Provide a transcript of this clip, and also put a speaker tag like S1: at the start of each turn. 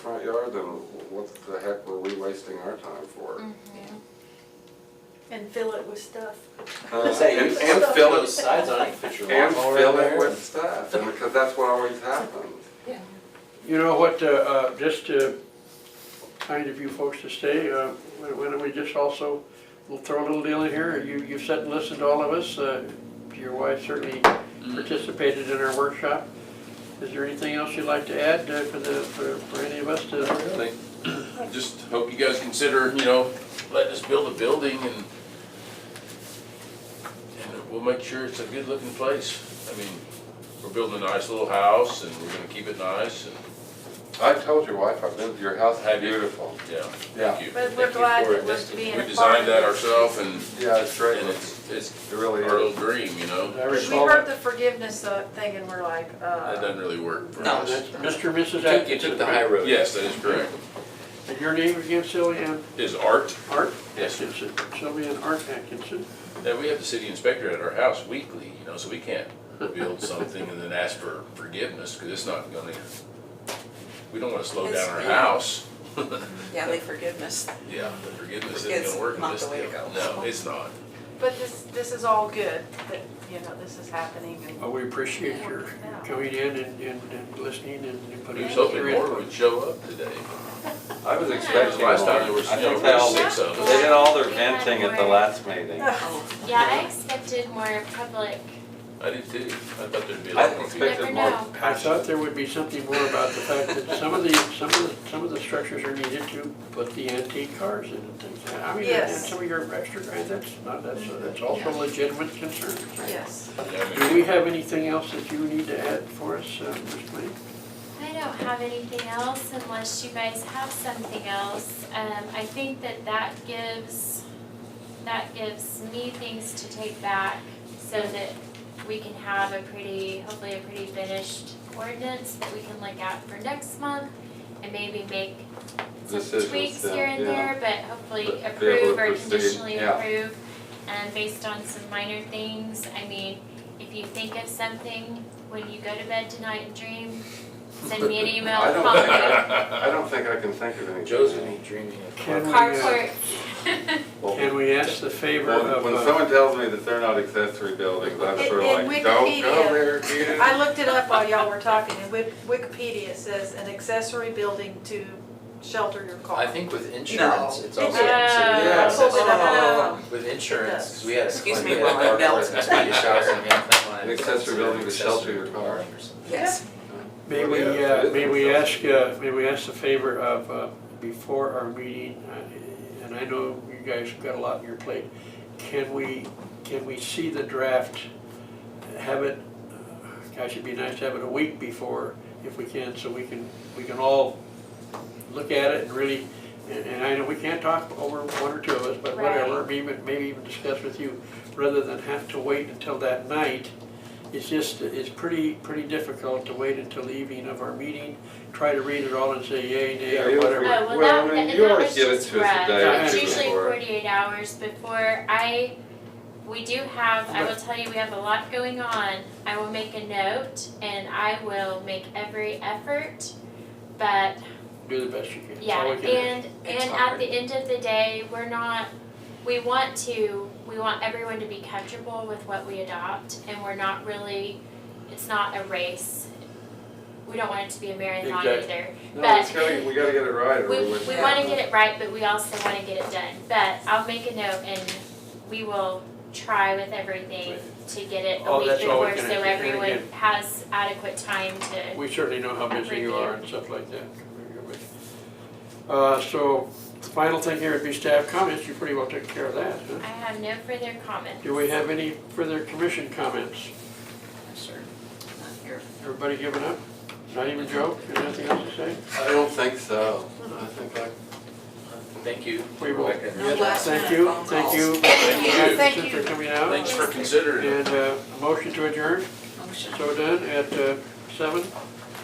S1: front yard, then what the heck were we wasting our time for?
S2: And fill it with stuff.
S1: Uh,
S3: Is that
S1: And
S3: you?
S1: and fill
S3: Those
S1: it,
S3: sides on it, put your
S1: and
S3: lawnmower
S1: fill
S3: in
S1: it
S3: there.
S1: with stuff, and because that's what always happens.
S4: You know what, uh, uh, just uh, kind of you folks to stay, uh, why why don't we just also, we'll throw a little deal in here, you, you've sat and listened to all of us, uh, your wife certainly
S3: Mm-hmm.
S4: participated in our workshop. Is there anything else you'd like to add uh, for the, for for any of us to?
S5: Really, just hope you guys consider, you know, letting us build a building and, and we'll make sure it's a good looking place. I mean, we're building a nice little house and we're gonna keep it nice and,
S1: I told your wife, I've been to your house, it's
S5: Have you?
S1: beautiful.
S5: yeah,
S1: Yeah,
S5: thank you.
S2: But we're
S5: Thank you
S2: glad
S5: for
S2: that
S5: it.
S2: we're being
S5: We
S2: a part of
S5: designed
S2: it.
S5: that ourselves and,
S1: yeah, it's great,
S5: and it's, it's
S1: it really
S5: our
S1: is.
S5: little dream, you know?
S4: I
S2: Because we
S4: recall
S2: heard
S4: that.
S2: the forgiveness uh, thing and we're like,
S5: That
S2: uh,
S5: doesn't really work for
S3: No,
S5: us.
S3: that's-
S4: Mr. and Mrs.
S3: You took, you took
S4: Atkinson,
S3: the high
S4: right?
S3: road.
S5: Yes, that is correct.
S4: And your name again, Sylvia Ann
S5: Is art,
S4: Art
S5: Yes, sir.
S4: Atkinson, Sylvia Ann Art Atkinson.
S5: Yeah, we have the city inspector at our house weekly, you know, so we can't build something and then ask for forgiveness, because it's not gonna, we don't wanna slow down our house.
S6: Yeah, they forgiveness.
S5: Yeah, the forgiveness isn't
S6: It's
S5: gonna work in
S6: not
S5: this
S6: the way to
S5: deal.
S6: go.
S5: No, it's not.
S2: but this, this is all good, that, you know, this is happening and.
S4: Well, we appreciate your coming in and, and and listening and
S5: We
S4: putting.
S5: was
S4: your
S5: hoping more
S4: input.
S5: would show up today.
S7: I was
S5: Because
S7: expecting more.
S5: last time there was,
S7: I
S5: you know,
S7: think
S5: there
S7: they
S5: was
S7: all,
S5: six of
S7: they
S5: us.
S7: did all their venting at the last meeting.
S2: uh,
S6: Oh,
S8: Yeah, I expected more public.
S5: I did too. I thought there'd be a
S7: I
S5: lot more people.
S7: expected
S8: Never
S7: more
S8: know.
S4: I
S7: passion.
S4: thought there would be something more about the fact that some of the, some of the, some of the structures are needed to put the antique cars in and things. like that. I mean, and
S2: Yes.
S4: some of your extra grant, that's not, that's, that's also legitimate concern.
S2: Yes.
S5: Yeah, I
S4: Do
S5: mean,
S4: we have anything else that you need to add for us, uh, Ms. Blaine?
S8: I don't have anything else unless you guys have something else. Um, I think that that gives, that gives me things to take back so that we can have a pretty, hopefully a pretty finished ordinance that we can look at for next month and maybe make some
S1: Decisions,
S8: tweaks
S1: yeah,
S8: here and
S1: uh, yeah.
S8: there, but hopefully
S1: But be able to
S8: approve or
S1: proceed,
S8: conditionally
S1: yeah.
S8: approve. And based on some minor things, I mean, if you think of something when you go to bed tonight and dream, send me an email,
S1: I don't
S8: call
S1: think-
S8: me.
S1: I don't think I can think of anything.
S5: Joe's gonna be dreaming
S4: Can
S5: of.
S4: we, uh,
S8: Carport.
S1: Well,
S4: can we ask the favor
S1: When,
S4: of,
S1: when
S4: uh,
S1: someone tells me that they're not accessory buildings, I'm
S2: In-
S1: sort
S2: in
S1: of like, don't
S2: Wikipedia,
S1: go there, kid.
S2: I looked it up while y'all were talking and Wik- Wikipedia says an accessory building to shelter your car.
S3: I think with insurance, it's also
S2: No.
S3: considered
S1: Yeah.
S2: Pulled it
S3: accessory.
S2: up.
S3: With insurance, 'cause we had a.
S6: Excuse me
S3: client
S6: while I
S3: that
S6: melt.
S3: was a Swedish house and we had that one.
S1: An accessory building to shelter your car.
S3: Accessory building.
S6: Yes.
S4: may we, uh, may we ask, uh, may we ask the favor of, uh, before our meeting, uh, and I know you guys have got a lot on your plate, can we, can we see the draft, have it, uh, gosh, it'd be nice to have it a week before, if we can, so we can, we can all look at it and really, and- and I know we can't talk over one or two of us, but whatever, maybe, maybe even discuss with you, rather than have to wait until that night. It's just, it's pretty, pretty difficult to wait until the evening of our meeting, try to read it all and say yay, nay,
S1: Yeah,
S4: or
S1: you-
S8: Oh,
S4: whatever.
S8: well,
S1: Well,
S8: that,
S1: I mean,
S8: that
S1: you
S8: that
S1: always
S8: was
S1: give it
S8: just
S1: to us the
S8: rough.
S1: day
S8: It's usually
S1: before.
S8: forty-eight hours before. I, we do have, I will tell you, we have a lot going on. I will make a note and I will make every effort, but
S4: do the best you can. That's
S8: Yeah,
S4: all we can do.
S8: and,
S6: It's
S8: and at
S6: hard.
S8: the end of the day, we're not, we want to, we want everyone to be comfortable with what we adopt, and we're not really, it's not a race. We don't want it to be a marathon
S4: Exactly.
S8: either.
S1: No, it's gotta, we gotta get it right or
S8: We,
S1: we
S8: we
S1: wouldn't.
S8: wanna get it right, but we also wanna get it done. But I'll make a note and we will try with everything to get it a
S4: Oh,
S8: week
S4: that's all we
S8: before,
S4: can
S8: so
S4: do. And
S8: everyone
S4: again-
S8: has adequate time to,
S4: We certainly know how busy you are and stuff like that. Uh, so, the final thing here would be staff comments, you pretty well took care of that,
S8: I
S4: huh?
S8: have no further comments.
S4: Do we have any further commission comments?
S6: Sure. Not here.
S4: Everybody giving up? Not even Joe, You got nothing else to say?
S1: I don't think so. I think I
S3: Thank you.
S4: We will.
S3: Rebecca.
S6: No last minute
S4: Thank you,
S6: phone
S4: thank
S6: calls.
S4: you.
S5: you.
S4: Thank you. For coming out,
S5: Thanks for considering it.
S4: and, uh, a motion to adjourn,
S6: Motion.
S4: so done at, uh, seven